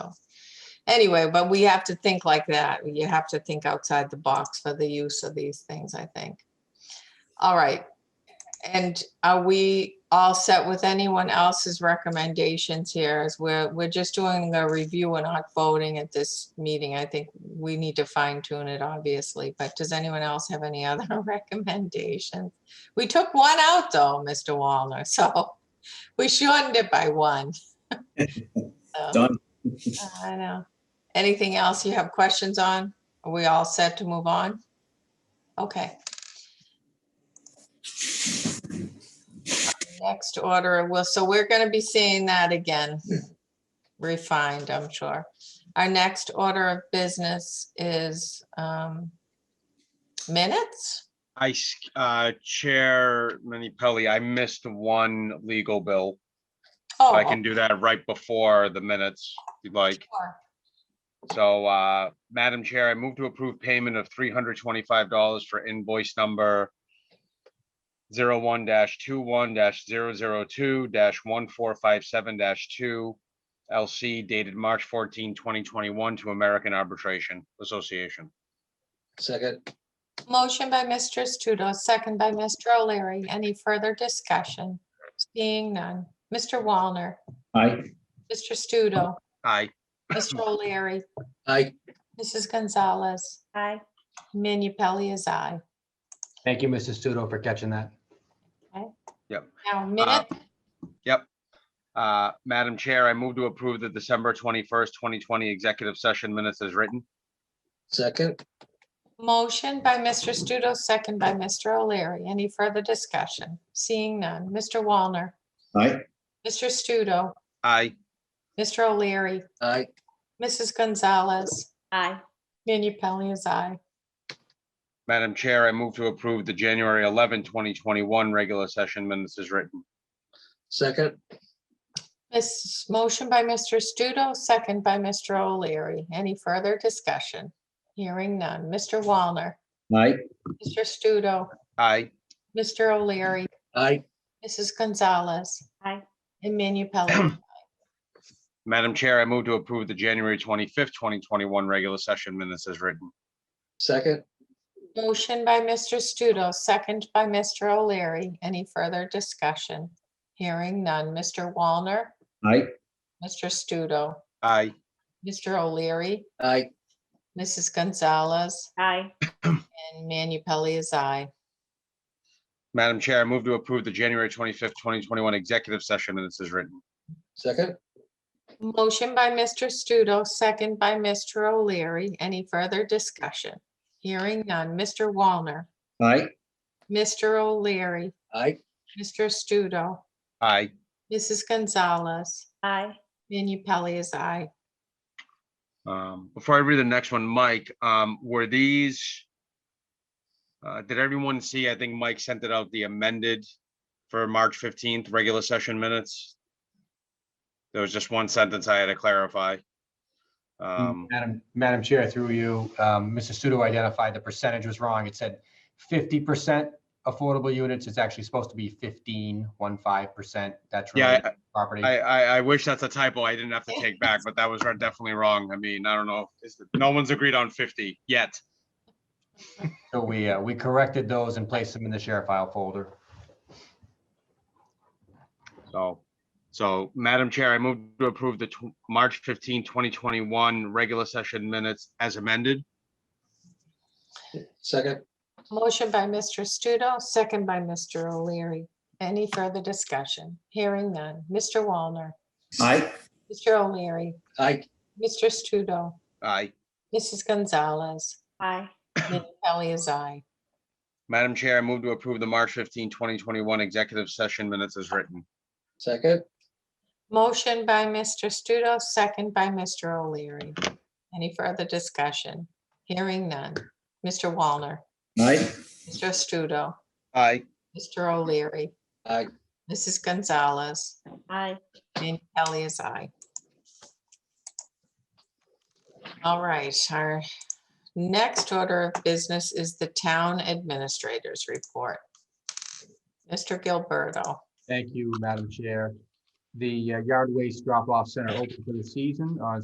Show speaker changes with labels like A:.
A: anyway, but we have to think like that. You have to think outside the box for the use of these things, I think. All right. And are we all set with anyone else's recommendations here? As we're, we're just doing a review and not voting at this meeting. I think we need to fine tune it, obviously, but does anyone else have any other recommendations? We took one out though, Mr. Wallner, so we shortened it by one. So-
B: Done.
A: I know. Anything else you have questions on? Are we all set to move on? Okay. Next order, well, so we're gonna be seeing that again. Refined, I'm sure. Our next order of business is um minutes?
C: I, s- uh, Chair Minipelli, I missed one legal bill.
A: Oh,
C: I can do that right before the minutes, if you'd like.
A: sure.
C: So, uh, Madam Chair, I move to approve payment of three hundred twenty-five dollars for invoice number zero one dash two one dash zero zero two dash one four five seven dash two LC dated March 14, 2021, to American Arbitration Association.
D: Second,
A: Motion by Mistress Studo, second by Mr. O'Leary. Any further discussion? Seeing none. Mr. Wallner,
B: Aye.
A: Mr. Studo,
C: Aye.
A: Mr. O'Leary,
D: aye,
A: Mrs. Gonzalez,
E: Aye.
A: Manu Pelley is aye.
F: Thank you, Mrs. Studo, for catching that.
A: Now, minute,
C: Uh, Madam Chair, I move to approve the December twenty-first, twenty twenty executive session minutes as written.
D: second,
A: motion by Mr. Studo, second by Mr. O'Leary. Any further discussion? Seeing none. Mr. Wallner,
B: Aye.
A: Mr. Studo,
C: Aye.
A: Mr. O'Leary,
D: aye,
A: Mrs. Gonzalez,
E: Aye.
A: Manu Pelley is aye.
C: Madam Chair, I move to approve the January 11, 2021 regular session minutes as written.
D: second,
A: This motion by Mr. Studo, second by Mr. O'Leary. Any further discussion? Hearing none. Mr. Wallner,
B: Aye.
A: Mr. Studo,
C: Aye.
A: Mr. O'Leary,
D: aye,
A: Mrs. Gonzalez.
E: Aye.
A: And Manu Pelley.
C: Madam Chair, I move to approve the January twenty-fifth, twenty twenty-one regular session minutes as written.
D: second,
A: Motion by Mr. Studo, second by Mr. O'Leary. Any further discussion? Hearing none. Mr. Wallner,
B: Aye.
A: Mr. Studo,
C: Aye.
A: Mr. O'Leary,
D: aye,
A: Mrs. Gonzalez,
E: Aye.
A: and Manu Pelley is aye.
C: Madam Chair, I move to approve the January twenty-fifth, twenty twenty-one executive session minutes as written.
D: second,
A: Motion by Mr. Studo, second by Mr. O'Leary. Any further discussion? Hearing none. Mr. Wallner,
B: Aye.
A: Mr. O'Leary,
D: aye,
A: Mr. Studo,
C: Aye.
A: Mrs. Gonzalez,
E: Aye.
A: Manu Pelley is aye.
C: Um, before I read the next one, Mike, um, were these? Uh, did everyone see? I think Mike sent it out, the amended for March fifteenth, regular session minutes. There was just one sentence I had to clarify. Um,
F: Madam, Madam Chair, through you, um, Mrs. Studo identified the percentage was wrong. It said fifty percent affordable units. It's actually supposed to be fifteen, one five percent. That's
C: yeah,
F: related to property.
C: I, I, I wish that's a typo I didn't have to take back, but that was definitely wrong. I mean, I don't know. It's- No one's agreed on fifty yet.
F: So we, uh, we corrected those and placed them in the share file folder.
C: So, so Madam Chair, I move to approve the tw- March 15, 2021 regular session minutes as amended.
D: second,
A: Motion by Mr. Studo, second by Mr. O'Leary. Any further discussion? Hearing none. Mr. Wallner,
B: Aye.
A: Mr. O'Leary,
D: aye,
A: Mr. Studo,
C: Aye.
A: Mrs. Gonzalez,
E: Aye.
A: Manu Pelley is aye.
C: Madam Chair, I move to approve the March 15, 2021 executive session minutes as written.
D: second,
A: Motion by Mr. Studo, second by Mr. O'Leary. Any further discussion? Hearing none. Mr. Wallner,
B: Aye.
A: Mr. Studo,
C: Aye.
A: Mr. O'Leary,
D: aye,
A: Mrs. Gonzalez,
E: Aye.
A: and Kelly is aye. All right, our next order of business is the town administrator's report. Mr. Gilberto.
F: Thank you, Madam Chair. The uh, yard waste drop-off center opened for the season on